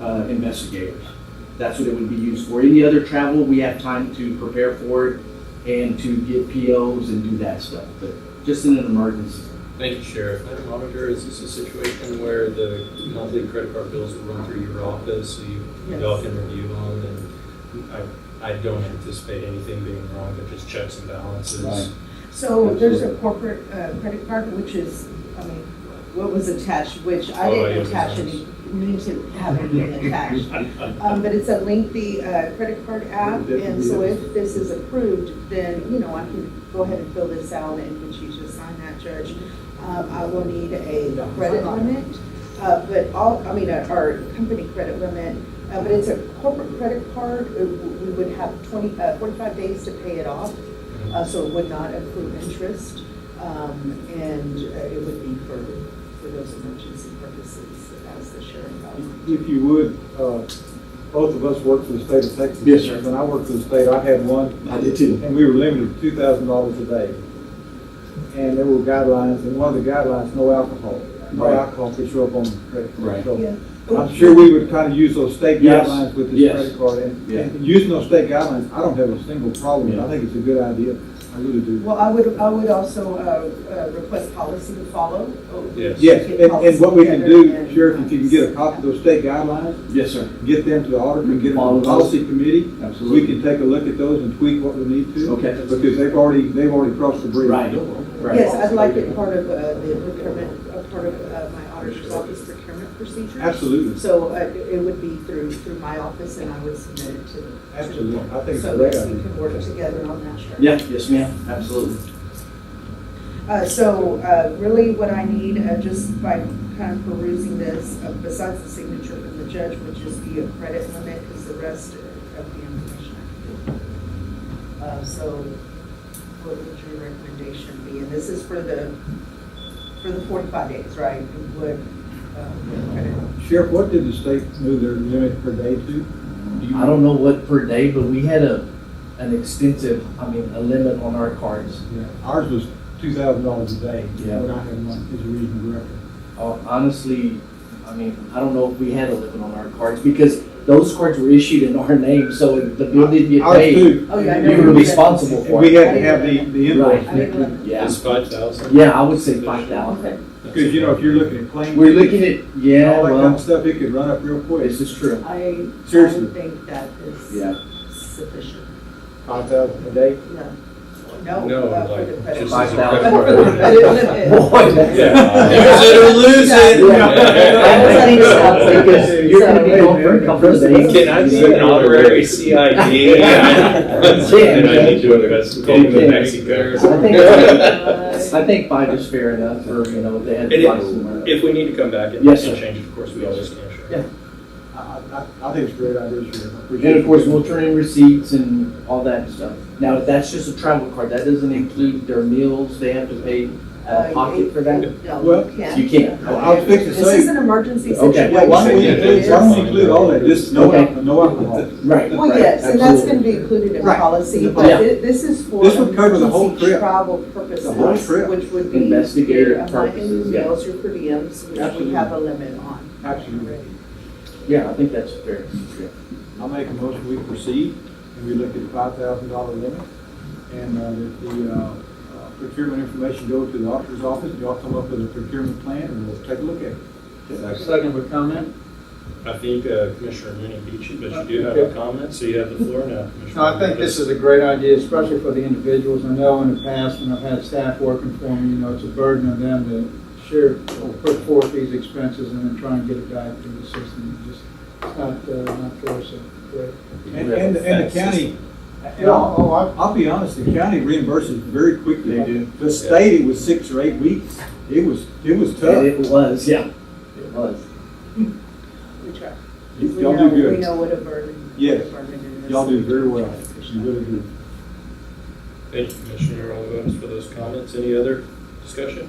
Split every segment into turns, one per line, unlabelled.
uh, investigators. That's what it would be used for. Any other travel, we have time to prepare for it and to get POs and do that stuff, but just in an emergency.
Thank you, Sheriff. Madam Auditor, is this a situation where the monthly credit card bills will run through your office, so you, y'all can review them? And I, I don't anticipate anything being wrong, but just checks and
Right.
balances.
So there's a corporate uh, credit card, which is, I mean, what was attached, which I
Oh, it
didn't
was
attach any, need to have anything attached. Um, But it's a lengthy uh, credit card app, and so if this is approved, then, you know, I can go ahead and fill this out and get you to sign that, Judge. Um, I will need a credit limit, uh, but all, I mean, uh, our company credit limit, uh, but it's a corporate credit card. It w- We would have 20, uh, 45 days to pay it off uh, so it would not accrue interest, um, and uh, it would be for, for those emergency purposes as the sheriff outlined.
If you would, uh, both of us work for the state of Texas.
Yes, sir.
When I worked for the state, I had one,
I did too.
and we were limited to two thousand dollars a day. And there were guidelines, and one of the guidelines, no alcohol. No
Right.
alcohol could show up on the credit card.
Right.
So
Yeah.
I'm sure we would kind of use those state
Yes.
guidelines with this
Yes.
credit card. And-
Yeah.
And using those state guidelines, I don't have a single problem.
Yeah.
I think it's a good idea. I really do.
Well, I would, I would also uh, uh, request policy to follow.
Yes.
Yes, and, and what we can do, Sheriff, if you can get a copy of those state guidelines,
Yes, sir.
get them to the auditor and get them
All
on
of
the
those?
policy committee. So we
Absolutely.
can take a look at those and tweak what we need to.
Okay.
Because they've already, they've already crossed the bridge.
Right, right.
uh, Yes, I'd like it part of uh, the procurement, uh, part of uh, my auditor's office procurement procedures.
Absolutely,
So uh, it would be through, through my office, and I would submit it to. to-
absolutely. I think it's a
So
great
that we can work
idea.
together on that, Sheriff.
Yeah, yes, ma'am, absolutely.
Uh, so, uh, really what I need, uh, just by kind of perusing this, uh, besides the signature from the judge, would just be a credit limit, because the rest of the information I can do. Uh, so, what would your recommendation be? And this is for the, for the forty-five days, right? It Would, uh, credit.
Sheriff, what did the state move their limit per day to? Do you-
I don't know what per day, but we had a, an extensive, I mean, a limit on our cards.
Yeah, Ours was two thousand dollars a day.
Yeah.
What I had one is a reasonable record.
Uh, Honestly, I mean, I don't know if we had a limit on our cards because those cards were issued in our name, so if the bill didn't get
Ours
paid.
too.
Oh, yeah, I
You
know.
were responsible
And
for
we
it.
had to have the, the invoice.
I didn't
next
know.
Yeah,
It's five thousand?
yeah, I would say five thousand.
Because, you know, if you're looking at claims.
We're looking at,
And
yeah,
all that kind of
well,
stuff, it could run up real quick.
this is true.
I, I
Seriously.
would think that is
Yeah,
sufficient.
Five thousand a day?
No, no,
No,
uh, for
like,
the
just
credit.
as a
limit.
credit
But
Boy,
card.
for the credit limit.
Yeah.
that's-
Use it or lose it.
Yeah. I think so, because You're gonna be gone for a couple of days.
Can I see an honorary CID? And I need to invest, go to Mexico.
I think- I think five is fair enough for, you know, they had.
And it-
five somewhere.
If we need to come back and and
Yes, sir.
change it, of course, we always can, Sheriff.
Yeah.
I, I, I think it's a great idea, Sheriff. I appreciate
And
it.
of course, we'll turn in receipts and all that stuff. Now, that's just a travel card, that doesn't include their meals, they have to pay
Uh,
a pocket for that?
No,
Well,
you can't.
You can't,
I was fixing to
This is
say,
an emergency
Okay.
situation.
yeah, why don't we
Yeah,
include, why don't we
yeah.
include all that, just no,
Okay.
al- no alcohol?
Right.
Well, yes, and that's gonna be included in
Right.
policy,
Yeah.
but thi- this is for
This would cover the whole
emergency
trip.
travel
The whole
purposes,
trip.
which would be.
Investigative
your, uh, my
purposes, yeah.
meals, Your per diems, which we
Absolutely.
have a limit on.
Absolutely.
Yeah, I think that's fair.
I'll make a motion, we proceed, and we look at the five thousand dollar limit, and, uh, that the, uh, uh, procurement information go to the auditor's office, y'all come up with a procurement plan, and we'll take a look at it.
Second with comment?
I think uh, Commissioner Mooney beat you, but you do have a comment, so you have the floor now, Commissioner.
No, I think this is a great idea, especially for the individuals. I know in the past, when I've had staff working for me, you know, it's a burden on them to share, or put forth these expenses and then try and get it back through the system. It's just it's not, uh, not fair, so, great.
And, and, and the county, and
No,
I'll,
oh, I,
I'll be honest, the county reimburses very quickly.
They do.
The state, it was six or eight weeks, it was, it was
And
tough.
it was, yeah, it was.
We try. We
Y'all
know-
do good.
We know what a burden. what a
Yes.
burden it is.
Y'all do very well. You really do.
Thank you, Commissioner Olivas, for those comments. Any other discussion?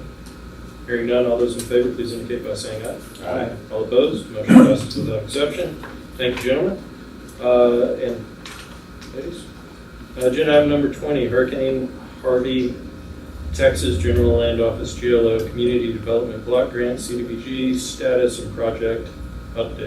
Hearing none, all those in favor, please indicate by saying aye.
Aye.
All opposed, motion passes without exception. Thank you, gentlemen. Uh, And ladies, Uh, agenda item number 20, Hurricane Harvey, Texas General Land Office, GLO, Community Development Block Grant, CDBG, status and project update.